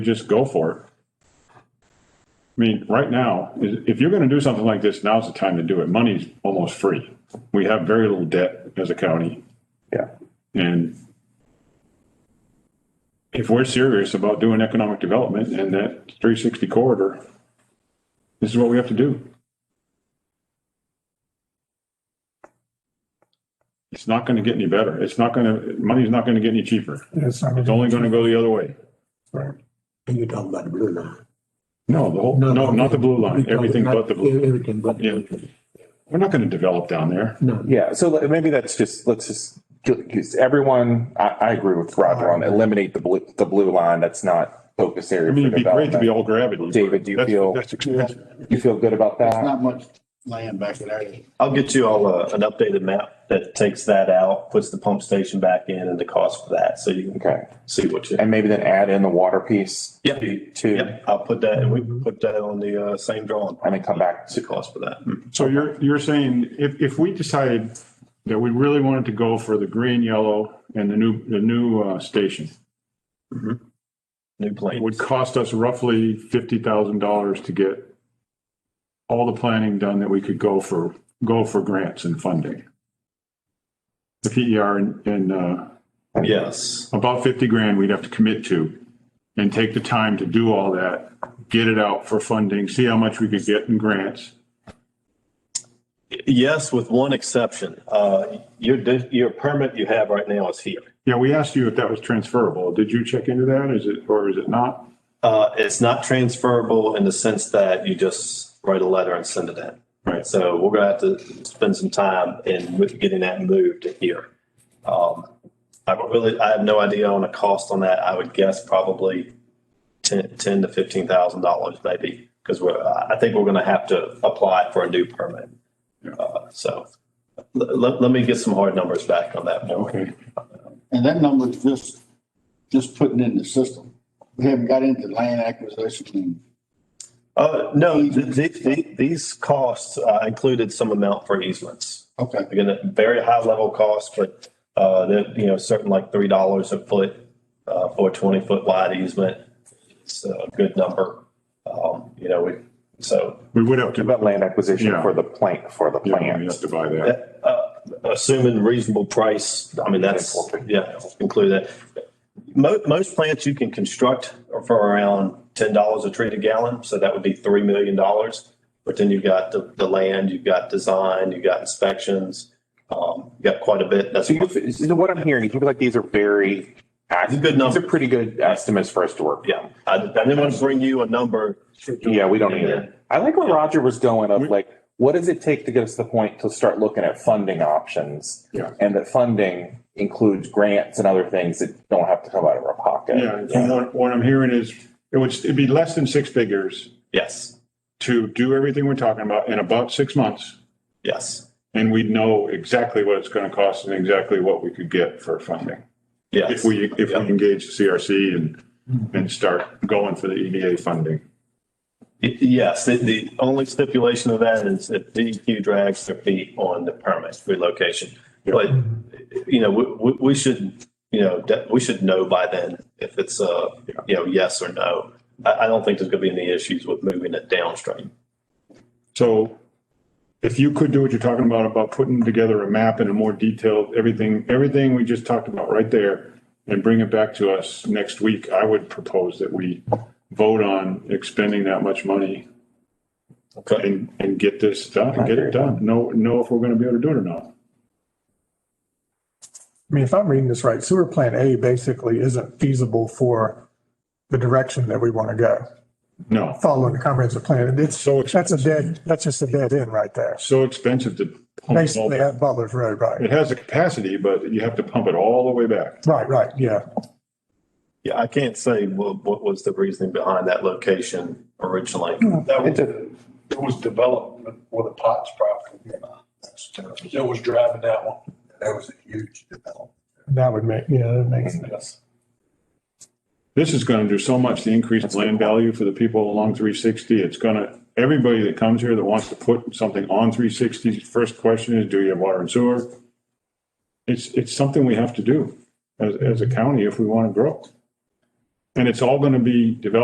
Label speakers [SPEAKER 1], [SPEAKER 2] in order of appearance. [SPEAKER 1] just go for it. I mean, right now, is- if you're gonna do something like this, now's the time to do it. Money's almost free. We have very little debt as a county
[SPEAKER 2] Yeah,
[SPEAKER 1] and if we're serious about doing economic development and that three sixty corridor, this is what we have to do. It's not gonna get any better. It's not gonna, money's not gonna get any cheaper.
[SPEAKER 3] It's not
[SPEAKER 1] It's only gonna go the other way.
[SPEAKER 3] right.
[SPEAKER 2] you're talking about the blue line.
[SPEAKER 1] No, the whole, no, not the blue line, everything but the blue.
[SPEAKER 2] Everything but. the blue line.
[SPEAKER 1] We're not gonna develop down there.
[SPEAKER 2] No,
[SPEAKER 4] Yeah, so le- maybe that's just, let's just, because everyone, I, I agree with Roger on eliminate the blue, the blue line. That's not focus
[SPEAKER 1] I
[SPEAKER 4] area
[SPEAKER 1] mean,
[SPEAKER 4] for
[SPEAKER 1] it'd be great to be
[SPEAKER 4] development.
[SPEAKER 1] all gravity. but
[SPEAKER 4] David, do you
[SPEAKER 1] that's-
[SPEAKER 4] feel-
[SPEAKER 1] that's expensive.
[SPEAKER 4] You feel good about that?
[SPEAKER 5] not much land back in there.
[SPEAKER 6] I'll get you all a, an updated map that takes that out, puts the pump station back in and the cost for that, so you can
[SPEAKER 4] Okay.
[SPEAKER 6] see what you.
[SPEAKER 4] And maybe then add in the water piece
[SPEAKER 6] Yep,
[SPEAKER 4] too,
[SPEAKER 6] yep, I'll put that, and we can put that on the, uh, same drawing,
[SPEAKER 4] and then come back
[SPEAKER 6] what's the
[SPEAKER 4] to,
[SPEAKER 6] cost for that?
[SPEAKER 1] So you're, you're saying if, if we decided that we really wanted to go for the green, yellow and the new, the new, uh, station,
[SPEAKER 6] New
[SPEAKER 1] it
[SPEAKER 6] plane.
[SPEAKER 1] would cost us roughly fifty thousand dollars to get all the planning done that we could go for, go for grants and funding. The PER and, and, uh,
[SPEAKER 6] Yes,
[SPEAKER 1] about 50 grand we'd have to commit to and take the time to do all that, get it out for funding, see how much we could get in grants.
[SPEAKER 6] yes, with one exception, uh, your, di- your permit you have right now is here.
[SPEAKER 1] Yeah, we asked you if that was transferable. Did you check into that? Is it, or is it not?
[SPEAKER 6] Uh, it's not transferable in the sense that you just write a letter and send it in.
[SPEAKER 1] Right.
[SPEAKER 6] So we're gonna have to spend some time in with getting that moved here. Um, I don't really, I have no idea on a cost on that. I would guess probably ten, ten to fifteen thousand dollars maybe. Cause we're, I I think we're gonna have to apply for a new permit. Uh, so let, let, let me get some hard numbers back on that. more.
[SPEAKER 1] Okay.
[SPEAKER 5] And that number's just, just putting in the system. We haven't got into land acquisition and
[SPEAKER 6] Uh, no, th- th- th- these costs uh, included some amount for easements.
[SPEAKER 5] Okay,
[SPEAKER 6] Again, a very high level cost, but, uh, that, you know, certain like three dollars a foot, uh, for a twenty foot wide easement. It's a good number. Um, you know, we, so
[SPEAKER 1] We would have to,
[SPEAKER 4] about land acquisition
[SPEAKER 1] Yeah.
[SPEAKER 4] for the plant, for the
[SPEAKER 1] yeah, we have
[SPEAKER 4] plant.
[SPEAKER 1] to buy that.
[SPEAKER 6] that, uh, assuming reasonable price, I mean, that's, yeah, include that. Mo- most plants you can construct are for around ten dollars a tree a gallon, so that would be three million dollars. But then you've got the, the land, you've got design, you've got inspections, um, you've got quite a bit. That's
[SPEAKER 4] So you, so what I'm hearing, you feel like these are very,
[SPEAKER 6] It's a
[SPEAKER 4] ac- these
[SPEAKER 6] good
[SPEAKER 4] are
[SPEAKER 6] number.
[SPEAKER 4] pretty good estimates for us to work.
[SPEAKER 6] Yeah, Uh, I, I didn't want to bring you a number.
[SPEAKER 4] Yeah, we don't either. I like where Roger was going of
[SPEAKER 1] We-
[SPEAKER 4] like, what does it take to get us to the point to start looking at funding options?
[SPEAKER 1] Yeah.
[SPEAKER 4] And that funding includes grants and other things that don't have to come out of our pocket.
[SPEAKER 1] Yeah, and from what, what I'm hearing is it would, it'd be less than six figures
[SPEAKER 6] Yes,
[SPEAKER 1] to do everything we're talking about in about six months.
[SPEAKER 6] yes,
[SPEAKER 1] And we'd know exactly what it's going to cost and exactly what we could get for funding. If
[SPEAKER 6] yes.
[SPEAKER 1] we, if we engage the CRC and, and start going for the EDA funding.
[SPEAKER 6] Y- Yes, the, the only stipulation of that is if DEQ drags their feet on the permit relocation. But, you know, we, we, we should, you know, that- we should know by then if it's a, you know, yes or no. I, I don't think there's gonna be any issues with moving it downstream.
[SPEAKER 1] So if you could do what you're talking about, about putting together a map and a more detailed, everything, everything we just talked about right there and bring it back to us next week, I would propose that we vote on expending that much money
[SPEAKER 6] Okay,
[SPEAKER 1] and, and get this done, and get it done. Know, know if we're going to be able to do it or not.
[SPEAKER 3] I mean, if I'm reading this right, sewer plant A basically isn't feasible for the direction that we want to go.
[SPEAKER 1] No,
[SPEAKER 3] Following the comprehensive plan, and it's,
[SPEAKER 1] So it's-
[SPEAKER 3] that's a dead, that's just a dead end right there.
[SPEAKER 1] so expensive to pump it all
[SPEAKER 3] Basically
[SPEAKER 1] back.
[SPEAKER 3] at Butler's Road, right?
[SPEAKER 1] It has the capacity, but you have to pump it all the way back.
[SPEAKER 3] Right, right, yeah.
[SPEAKER 6] yeah, I can't say what, what was the reasoning behind that location originally.
[SPEAKER 7] That
[SPEAKER 4] It's
[SPEAKER 7] was,
[SPEAKER 4] a,
[SPEAKER 7] it was development for the Potts property. That was driving that one. That was a huge development.
[SPEAKER 3] That would make, yeah, that makes sense.
[SPEAKER 7] Yes.
[SPEAKER 1] This is going to do so much to increase land value for the people along 360. It's going to, everybody that comes here that wants to put something on 360, 's first question is, do you have water and sewer? It's, it's something we have to do as, as a county if we want to grow. And it's all gonna be developed